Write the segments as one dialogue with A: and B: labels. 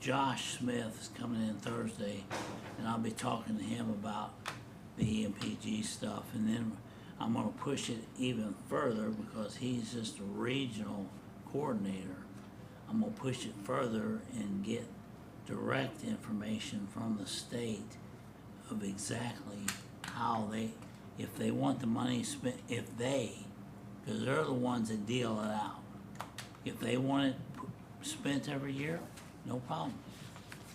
A: Josh Smith is coming in Thursday, and I'll be talking to him about the E EMPG stuff, and then I'm gonna push it even further because he's just a regional coordinator. I'm gonna push it further and get direct information from the state of exactly how they, if they want the money spent, if they, because they're the ones that deal it out. If they want it p- spent every year, no problem.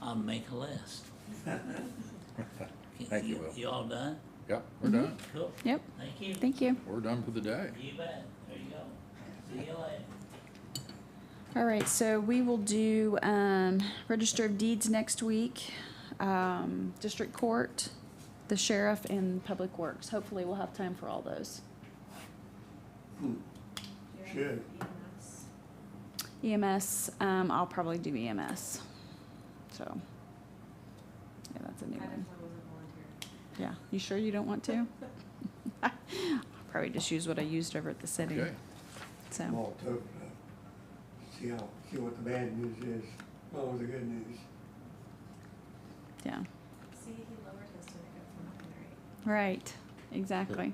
A: I'll make a list.
B: Thank you, Will.
A: You all done?
B: Yep, we're done.
A: Cool.
C: Yep,
A: Thank you.
C: thank you.
B: We're done for the day.
A: You bet. There you go. See you later.
C: All right, so we will do, um, register of deeds next week, um, district court, the sheriff and public works. Hopefully we'll have time for all those.
D: Should.
C: EMS, E um, I'll probably do EMS, so. Yeah, that's a new one. Yeah, you sure you don't want to? I'll Probably just use what I used over at the city,
B: Okay,
C: so.
D: Malt toast, uh, see how, see what the bad news is, what was the good news?
C: Yeah,
E: See, he lowered his to make up for mine, right?
C: right, exactly,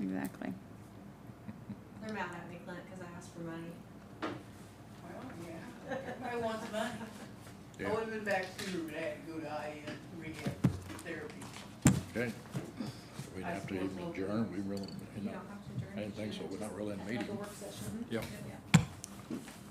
C: exactly.
E: They're mad at me, Clint, because I asked for money.
F: Well, yeah, everybody wants money.
B: Yeah.
F: I would've been back sooner, but I had to go to IM rehab therapy.
B: okay. We'd have to even adjourn, we really, you
E: You
B: know,
E: don't have to adjourn.
B: I didn't think so, we're not really in a meeting.
E: work session.
B: Yep.
E: Yeah.